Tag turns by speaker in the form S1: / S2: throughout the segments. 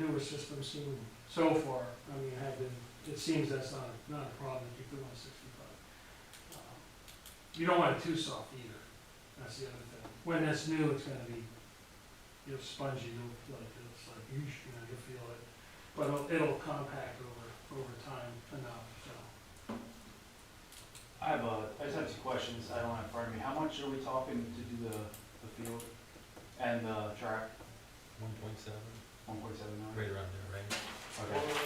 S1: newer systems seem, so far, I mean, have been, it seems that's not, not a problem if you're doing sixty-five. Um, You don't want it too soft either, that's the other thing. When it's new, it's gonna be, you know, spongy, you'll feel like, it's like, you you know, you'll feel it. But it'll, it'll compact over, over time enough, so.
S2: I have a, I just have two questions, I don't have in front of me, how much are we talking to do the, the field and the track,
S3: One point seven,
S2: one point seven million?
S3: right around there, right?
S2: Okay.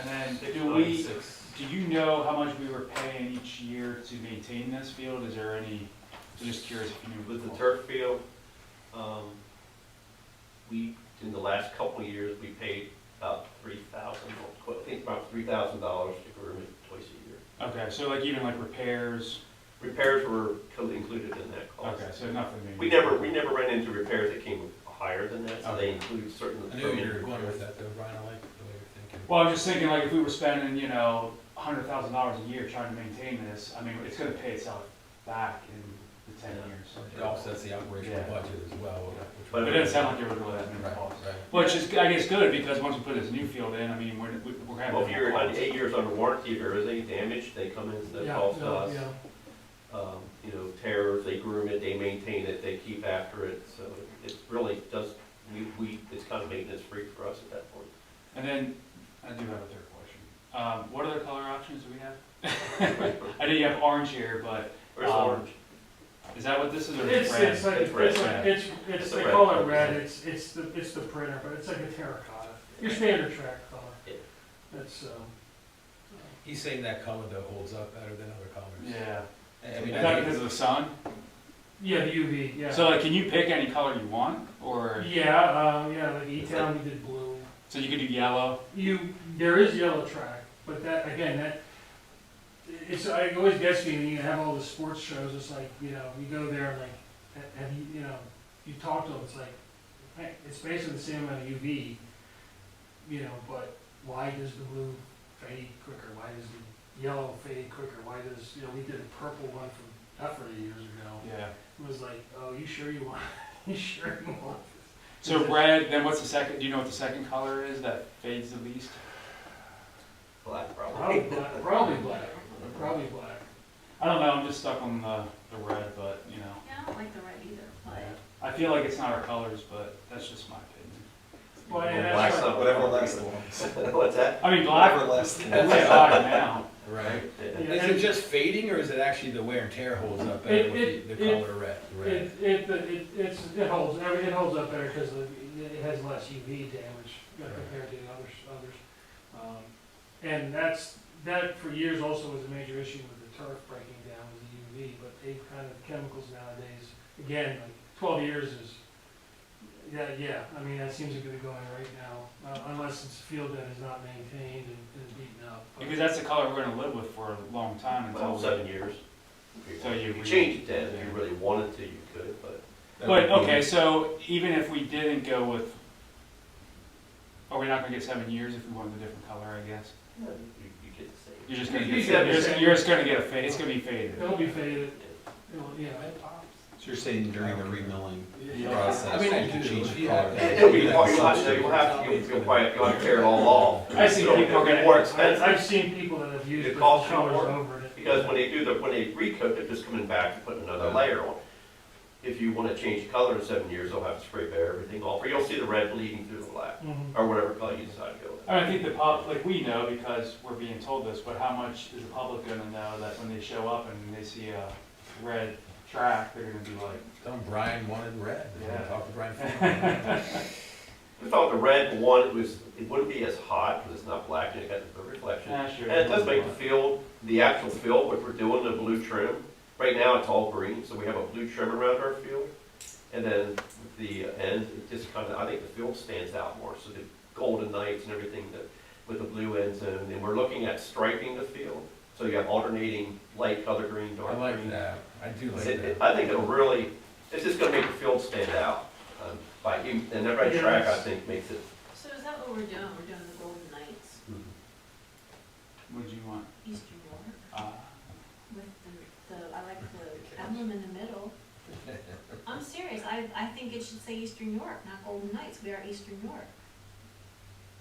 S2: And then
S3: Six
S2: do
S3: point
S2: we,
S3: six.
S2: do you know how much we were paying each year to maintain this field, is there any, I'm just curious if you knew.
S4: With the turf field, um, we, in the last couple of years, we paid about three thousand, I think about three thousand dollars to groom it twice a year.
S2: Okay, so like even like repairs,
S4: Repairs were totally included in that cost.
S2: okay, so nothing major.
S4: Oh. We never, we never ran into repairs that came higher than that, so they include certain.
S3: I knew you were going with that though, Brian, I like the way you're thinking.
S2: Well, I'm just thinking like if we were spending, you know, a hundred thousand dollars a year trying to maintain this, I mean, it's gonna pay itself back in the ten
S4: Yeah.
S2: years.
S3: It offsets the operational
S2: Yeah.
S3: budget as well.
S4: But
S2: But it doesn't sound like it would really have many
S3: Right,
S2: costs.
S3: right.
S2: Which is, I guess, good, because once we put this new field in, I mean, we're, we're having.
S4: Well, if you're on eight years under warranty, if there is any damage, they come in, and they
S1: Yeah,
S4: call
S1: yeah,
S4: us.
S1: yeah.
S4: Um, You know, terrors, they groom it, they maintain it, they keep after it, so it really does, we, we, it's kind of maintenance free for us at that point.
S2: And then, I do have a third question. Um, what other color options do we have? I know you have orange here, but
S4: Where's the
S2: Um,
S4: orange?
S2: is that what this is, or is
S1: It's,
S2: it red?
S1: it's like,
S4: It's
S1: it's,
S4: red.
S1: like- it's, it's,
S4: It's
S1: they
S4: red.
S1: call it red, it's, it's the, it's the printer, but it's like a terracotta, your standard track color.
S4: Yeah.
S1: That's, um,
S3: He's saying that color though holds up better than other colors.
S2: Yeah.
S3: I
S2: Is
S3: mean,
S2: that
S3: I think
S2: because of the sun?
S1: yeah, the UV, yeah.
S2: So like, can you pick any color you want, or,
S1: Yeah, uh, yeah, like E-Town, we did blue.
S2: so you could do yellow?
S1: You, there is yellow track, but that, again, that, it's, I always gets me, when you have all the sports shows, it's like, you know, you go there, and like, ha- have you, you know, you talk to them, it's like, hey, it's basically the same amount of UV, you know, but why does the blue fade quicker, why does the yellow fade quicker, why does, you know, we did a purple one from Effort years ago,
S2: Yeah.
S1: it was like, oh, you sure you want, you sure you want this?
S2: So red, then what's the second, do you know what the second color is that fades the least?
S4: Black,
S1: Probably
S4: probably.
S1: black, probably black, probably black.
S2: I don't know, I'm just stuck on the, the red, but, you know.
S5: Yeah, I don't like the red either, but
S2: I feel like it's not our colors, but that's just my opinion.
S1: Well, and
S4: Well,
S1: that's
S4: black's
S1: right.
S4: not-
S6: Whatever lasts the longest.
S4: What's that?
S2: I mean, black,
S6: Whatever lasts the
S2: that's
S6: longest.
S2: like black now.
S3: Right.
S4: Yeah.
S1: Yeah,
S3: Is
S1: and-
S3: it just fading or is it actually the wear and tear holds up
S1: It-
S3: better with the
S1: it-
S3: the
S1: it-
S3: color red?
S1: It, it, it, it's, it holds, I mean, it holds up better because it has less UV damage uh, compared to the others, others. Um, And that's, that for years also was a major issue with the turf breaking down with the UV, but they kind of, chemicals nowadays, again, like twelve years is, yeah, yeah, I mean, that seems to be the going right now, uh, unless it's a field that is not maintained and and beaten up. but-
S2: Because that's the color we're gonna live with for a long time until.
S4: Well,
S2: we-
S4: seven years. If you
S2: So
S4: want-
S2: you
S4: you could
S2: re-
S4: change it then, if
S2: yeah.
S4: you really wanted to, you could, but
S2: But, okay, so even if we didn't go with, are we not gonna get seven years if we wanted a different color, I guess?
S4: you uh, you get the same.
S2: You're just gonna
S1: You
S2: get,
S1: get
S2: you're just,
S1: seven.
S2: you're just gonna get a fade, it's gonna be faded.
S1: It'll be faded, it'll, yeah, it-
S6: So you're saying during the remilling
S2: Yeah.
S6: process?
S3: I mean, I
S6: you can
S3: do,
S6: change
S3: if
S6: the
S3: you
S6: color.
S3: have-
S4: It'll be,
S3: Yeah.
S4: you'll have to, you'll have to, you'll probably, you'll have to tear it all off.
S2: I see
S4: It'll-
S2: people
S4: it'll be
S2: getting-
S4: More
S1: I-
S4: expensive,
S1: I've seen people that have used
S4: It
S1: the
S4: costs you
S1: colors
S4: more
S1: over it.
S4: because when they do the, when they recoat, they're just coming back and putting another layer on. If you wanna change the color in seven years, they'll have to spray bare everything off, or you'll see the red bleeding through the black,
S1: Mhm.
S4: or whatever color you decide to go with.
S2: I mean, I think the pub, like, we know because we're being told this, but how much is the public gonna know that when they show up and they see a red track, they're gonna be like,
S3: Tell him Brian wanted red.
S2: Yeah.
S3: Talk to Brian. Funk.
S4: We thought the red one, it was, it wouldn't be as hot because it's not black and it got the reflection.
S2: nah, sure.
S4: And it does make the field, the actual field, what we're doing, the blue trim, right now it's all green, so we have a blue trim around our field. And then the end, it just kind of, I think the field stands out more, so the golden knights and everything that, with the blue ends and, and we're looking at striping the field. So you have alternating light color green,
S3: I
S4: dark green.
S3: like that. I do like
S4: It-
S3: that.
S4: it- I think it'll really, it's just gonna make the field stand out, um, by, and that red track, I
S1: Yes.
S4: think, makes it
S5: so is that what we're doing? We're doing the Golden Knights,
S3: Hmm.
S2: Would you want,
S5: Eastern York,
S2: uh,
S5: with the, the, I like the emblem in the middle. I'm serious, I, I think it should say Eastern York, not Golden Knights, we are Eastern York.